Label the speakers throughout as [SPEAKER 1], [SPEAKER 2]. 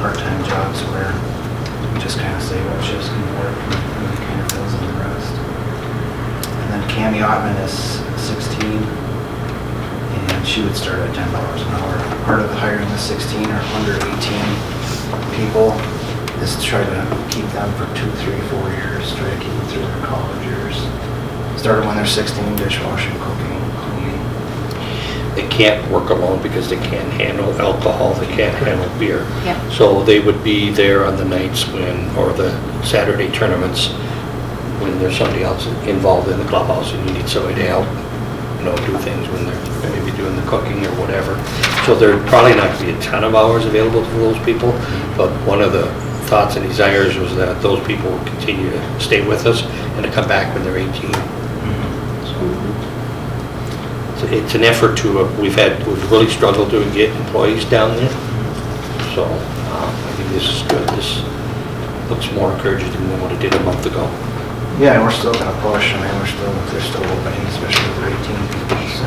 [SPEAKER 1] part-time jobs where we just kind of say what shifts can work and it kind of fills in the rest. And then Cami Ottman is 16 and she would start at ten dollars an hour. Part of hiring the sixteen or under eighteen people is to try to keep them for two, three, four years, try to keep them through their college years. Start when they're sixteen, dishwashing, cooking, cleaning.
[SPEAKER 2] They can't work alone because they can't handle alcohol, they can't handle beer.
[SPEAKER 3] Yep.
[SPEAKER 2] So they would be there on the nights when, or the Saturday tournaments, when there's somebody else involved in the clubhouse and you need somebody to help, you know, do things when they're maybe doing the cooking or whatever. So there'd probably not be a ton of hours available for those people, but one of the thoughts and desires was that those people would continue to stay with us and to come back when they're 18, Mm-hmm. It's- It's an effort to, uh, we've had, we've really struggled to get employees down there, so uh, I think this is good. This looks more encouraging than what it did a month ago.
[SPEAKER 1] Yeah, and we're still gonna push, I mean, we're still, they're still opening, especially with eighteen people, so.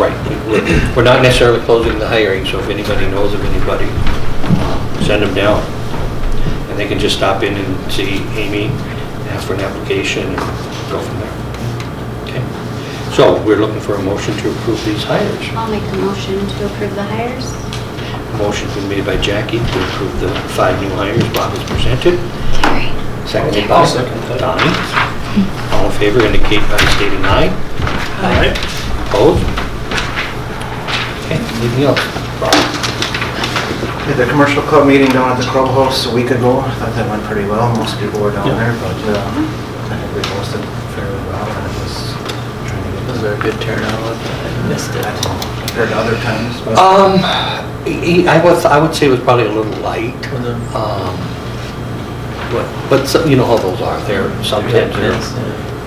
[SPEAKER 2] Right. We're- We're not necessarily closing the hiring, so if anybody knows of anybody, uh, send them down. And they can just stop in and see Amy, ask for an application, and go from there. Okay? So we're looking for a motion to approve these hires.
[SPEAKER 3] I'll make a motion to approve the hires.
[SPEAKER 2] Motion's been made by Jackie to approve the five new hires Bob has presented.
[SPEAKER 3] Carrie.
[SPEAKER 2] Seconded by Donnie. All in favor indicate by stating aye. Aye. Opposed? Okay, anything else? Bob?
[SPEAKER 1] Did the commercial club meeting down at the clubhouse a week ago. I thought that went pretty well. Most people were down
[SPEAKER 2] Yeah.
[SPEAKER 1] there, but uh, I think we hosted fairly well and it was trying to get. Was there a good turnout? Missed it. Uh, Compared to other times, but.
[SPEAKER 2] Um, e- e- I was, I would say it was probably a little light. Um, But, but some- you know how those are, they're sometimes they're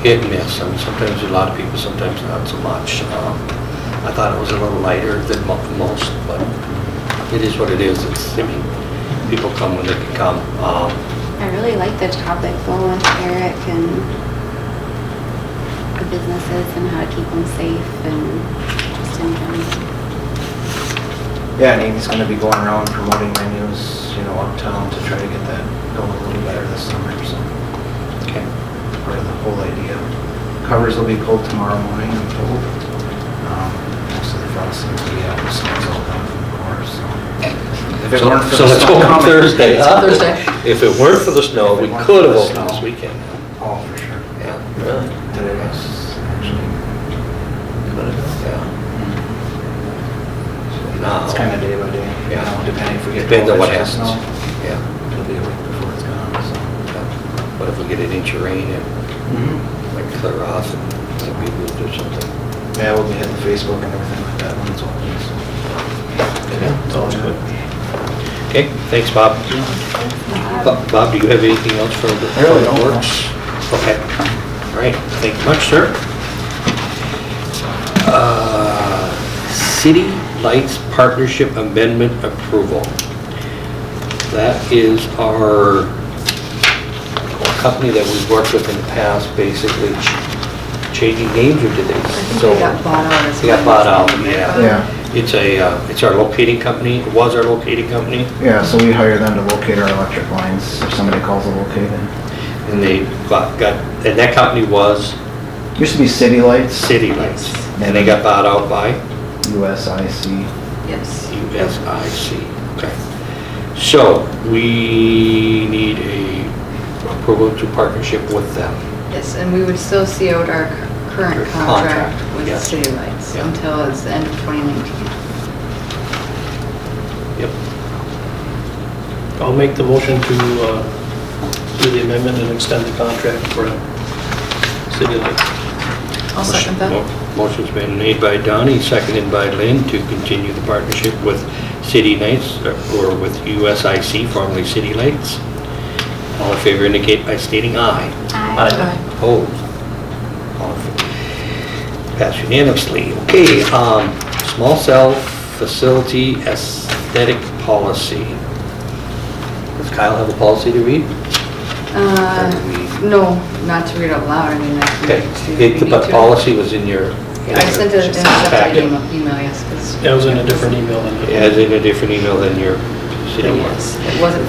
[SPEAKER 2] hit and miss, I mean, sometimes a lot of people, sometimes not so much. Um, I thought it was a little lighter than mo- most, but it is what it is, it's, I mean, people come when they can come. Um,
[SPEAKER 3] I really like the topic though with Eric and the businesses and how to keep them safe and just in general.
[SPEAKER 1] Yeah, and Amy's gonna be going around promoting menus, you know, uptown to try to get that going a little better this summer, so.
[SPEAKER 2] Okay.
[SPEAKER 1] Part of the whole idea. Covers will be pulled tomorrow morning, I'm told. Um, Most of the frost seems to be out, the snow's all gone from the cars, so. If it
[SPEAKER 2] So
[SPEAKER 1] weren't for
[SPEAKER 2] so
[SPEAKER 1] the
[SPEAKER 2] let's
[SPEAKER 1] snow
[SPEAKER 2] hope
[SPEAKER 1] coming-
[SPEAKER 2] Thursday, huh?
[SPEAKER 4] Thursday.
[SPEAKER 2] If it weren't for the snow,
[SPEAKER 1] If it
[SPEAKER 2] we
[SPEAKER 1] weren't
[SPEAKER 2] could
[SPEAKER 1] for
[SPEAKER 2] have
[SPEAKER 1] the
[SPEAKER 2] opened this
[SPEAKER 1] snow.
[SPEAKER 2] weekend.
[SPEAKER 1] Oh, for sure.
[SPEAKER 2] Yeah,
[SPEAKER 4] Really?
[SPEAKER 1] Today was actually,
[SPEAKER 2] yeah. So now-
[SPEAKER 1] it's kind of day by day, you
[SPEAKER 2] Yeah.
[SPEAKER 1] know, depending if we get.
[SPEAKER 2] Depends on what
[SPEAKER 1] 12 inches of
[SPEAKER 2] happens.
[SPEAKER 1] snow,
[SPEAKER 2] Yeah.
[SPEAKER 1] It'll be a week before it's gone, so.
[SPEAKER 2] yeah. What if we get an inch of rain and like clear off and maybe we'll do something?
[SPEAKER 1] Yeah, we'll be hitting Facebook and everything like that when it's open, so.
[SPEAKER 2] It's all good. Okay, thanks, Bob. Bo- Bob, do you have anything else for the
[SPEAKER 1] I really
[SPEAKER 2] public
[SPEAKER 1] don't, no.
[SPEAKER 2] works? Okay, all right, thank you much, sir. Uh, City Lights Partnership Amendment Approval. That is our company that we've worked with in the past, basically ch- changing names, or did they?
[SPEAKER 4] I think they got bought out as
[SPEAKER 2] They got bought out, yeah.
[SPEAKER 1] Yeah.
[SPEAKER 2] It's a, uh, it's our locating company, it was our locating company,
[SPEAKER 1] Yeah, so we hire them to locate our electric lines if somebody calls to locate it.
[SPEAKER 2] and they got, got- and that company was
[SPEAKER 1] Used to be City Lights,
[SPEAKER 2] City Lights. And they got bought out by
[SPEAKER 1] USIC.
[SPEAKER 4] Yes.
[SPEAKER 2] USIC. Okay. So, we need a approval to partnership with them.
[SPEAKER 4] Yes, and we would still see out our current
[SPEAKER 2] Contract,
[SPEAKER 4] contract with
[SPEAKER 2] yes.
[SPEAKER 4] City Lights
[SPEAKER 2] Yeah.
[SPEAKER 4] until it's the end of 2019.
[SPEAKER 2] Yep.
[SPEAKER 5] I'll make the motion to uh, do the amendment and extend the contract for uh, City Lake.
[SPEAKER 4] I'll second that.
[SPEAKER 2] Mo- Motion's been made by Donnie, seconded by Lynn to continue the partnership with City Lights, or with USIC, formerly City Lights. All in favor indicate by stating aye.
[SPEAKER 4] Aye.
[SPEAKER 2] Opposed? All in favor. Passed unanimously. Okay, um, small cell facility aesthetic policy. Does Kyle have a policy to read?
[SPEAKER 4] Uh, No, not to read out loud, I mean, that's...
[SPEAKER 2] Okay,
[SPEAKER 4] to-
[SPEAKER 2] it-
[SPEAKER 4] we need
[SPEAKER 2] but
[SPEAKER 4] to-
[SPEAKER 2] policy was in your.
[SPEAKER 4] I sent it in a
[SPEAKER 2] Packet.
[SPEAKER 4] separate email, email, yes, 'cause-
[SPEAKER 5] That was in a different email than
[SPEAKER 2] As in a different email than your city work.
[SPEAKER 4] Yes, it wasn't